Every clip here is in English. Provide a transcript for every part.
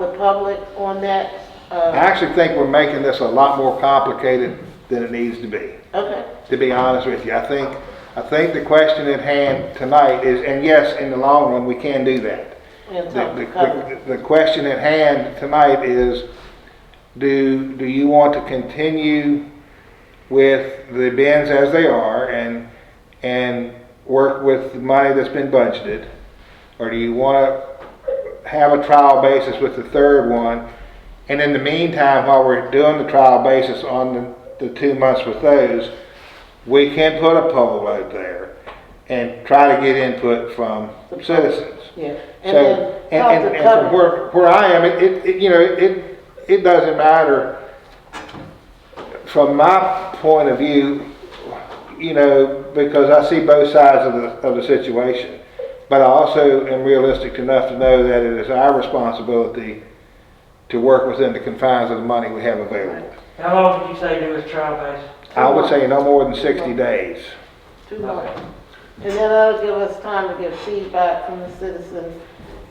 the public on that? I Uh, actually think we're making this a lot more complicated than it needs to be, Okay, to be honest with you. I think, I think the question at hand tonight is, and yes, in the long run, we can do that. and The, something covered. the- the, the question at hand tonight is, do, do you want to continue with the bins as they are and, and work with the money that's been budgeted? Or do you wanna have a trial basis with the third one? And in the meantime, while we're doing the trial basis on the, the two months with those, we can put a poll out there and try to get input from citizens. Yeah, and So, then and, and, help and to from cover. where, where I am, it- it, it, you know, it, it doesn't matter. From my point of view, you know, because I see both sides of the, of the situation. But I also am realistic enough to know that it is our responsibility to work within the confines of the money we have available. How long did you say there was trial base? I would say no more than sixty days. Two months. And then that'll give us time to get feedback from the citizens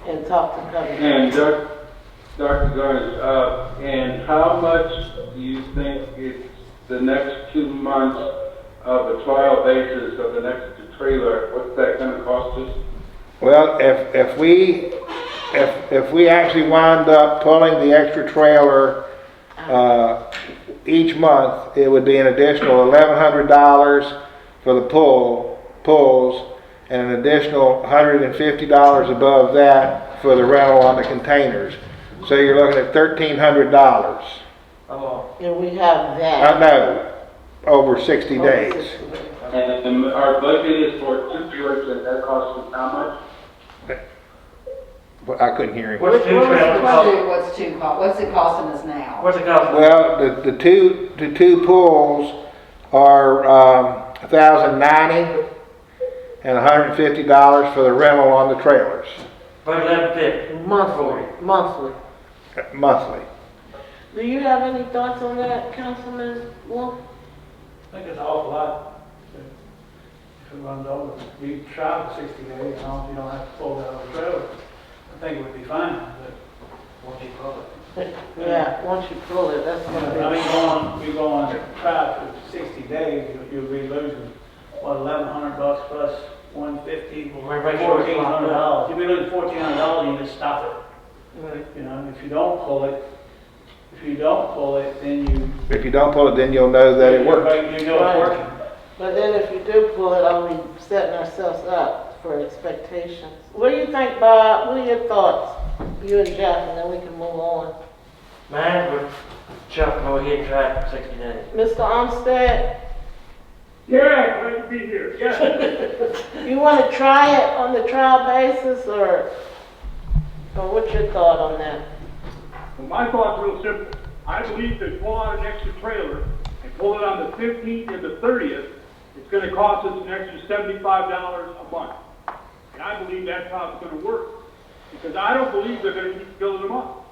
and talk to cover. And Doc- Dr. Garner, uh, and how much do you think it's the next two months of a trial basis of the next trailer, what's that gonna cost us? Well, if, if we, if, if we actually wind up pulling the extra trailer, uh, each month, it would be an additional eleven hundred dollars for the pull, pulls, and an additional hundred and fifty dollars above that for the rental on the containers. So you're looking at thirteen hundred dollars. How long? And we have I that. know, over sixty on the days. system. And then our budget is for two trailers, and that costs us how much? But I couldn't hear him. What's two What was the trailers budget, cost? what's two cost, what's it costing us now? What's it cost? Well, the, the two, the two pulls are, um, a thousand ninety and hundred and fifty dollars for the rental on the trailers, About eleven fifty. Monthly, monthly. uh, monthly. Do you have any thoughts on that, Councilman Wolf? I think it's an awful lot to run over. You try the sixty days, as long as you don't have to pull that on the trailer. I think it would be fine, but won't be public. Yeah, once you pull it, that's I what mean, it is. going, we going to try for sixty days, you- you'll be losing, what, eleven hundred bucks plus one fifty, Well, we make sure it's fourteen locked hundred up. dollars. You'll be losing fourteen hundred dollars, and you just stop it, Right. you know, if you don't pull it. If you don't pull it, then you. If you don't pull it, then you'll know that it worked. You know it's Right. working. But then if you do pull it, are we setting ourselves up for expectations? What do you think, Bob? What are your thoughts, you and Jeff, and then we can move on? Mine would jump go ahead and try it for sixty days. Mr. Armstead, Yeah, glad to be here, yeah. you want to try it on the trial basis, or, or what's your thought on that? Well, my thought's real simple. I believe to pull out an extra trailer and pull it on the fifteenth and the thirtieth, it's gonna cost us an extra seventy-five dollars a month. And I believe that's how it's gonna work, because I don't believe they're gonna keep building them up.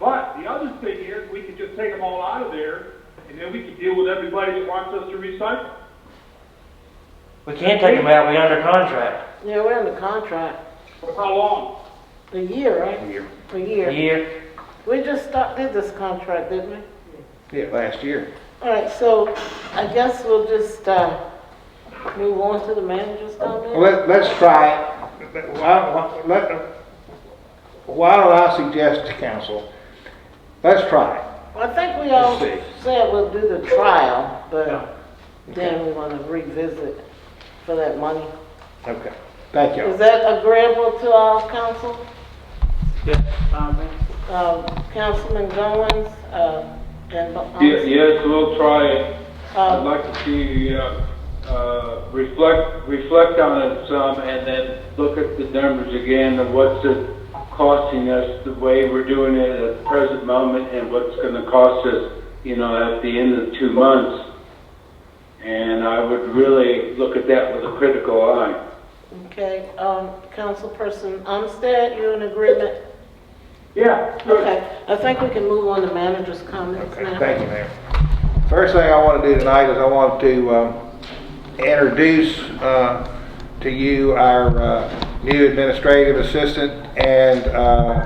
But the other thing is, we could just take them all out of there, and then we could deal with everybody that wants us to recycle. We can't take them out, we under contract. Yeah, we're under contract, For how long? a year, right? Year. A A year. year, We just start, did this contract, didn't we? Yeah, last year. All right, so I guess we'll just, uh, move on to the manager's comment? Well, Let, let's try it. But Why, why- let, why don't I suggest to council, let's try it. Well, I think we all Let's said we'll do the trial, Yeah. but then we want to revisit for that money. Okay, thank you. Is that agreeable to all council? Yeah, fine, man. Um, Councilman Goins, uh, and... Yes, yes, we'll try it. I'd Uh, like to see, uh, uh, reflect, reflect on it some and then look at the numbers again of what's it costing us, the way we're doing it at the present moment and what's gonna cost us, you know, at the end of two months. And I would really look at that with a critical eye. Okay, um, Councilperson Umstead, you in agreement? Yeah, sure. Okay, I think we can move on to manager's comments Okay, now. thank you, Mayor. First thing I want to do tonight is I want to um, introduce uh, to you our uh, new administrative assistant and uh,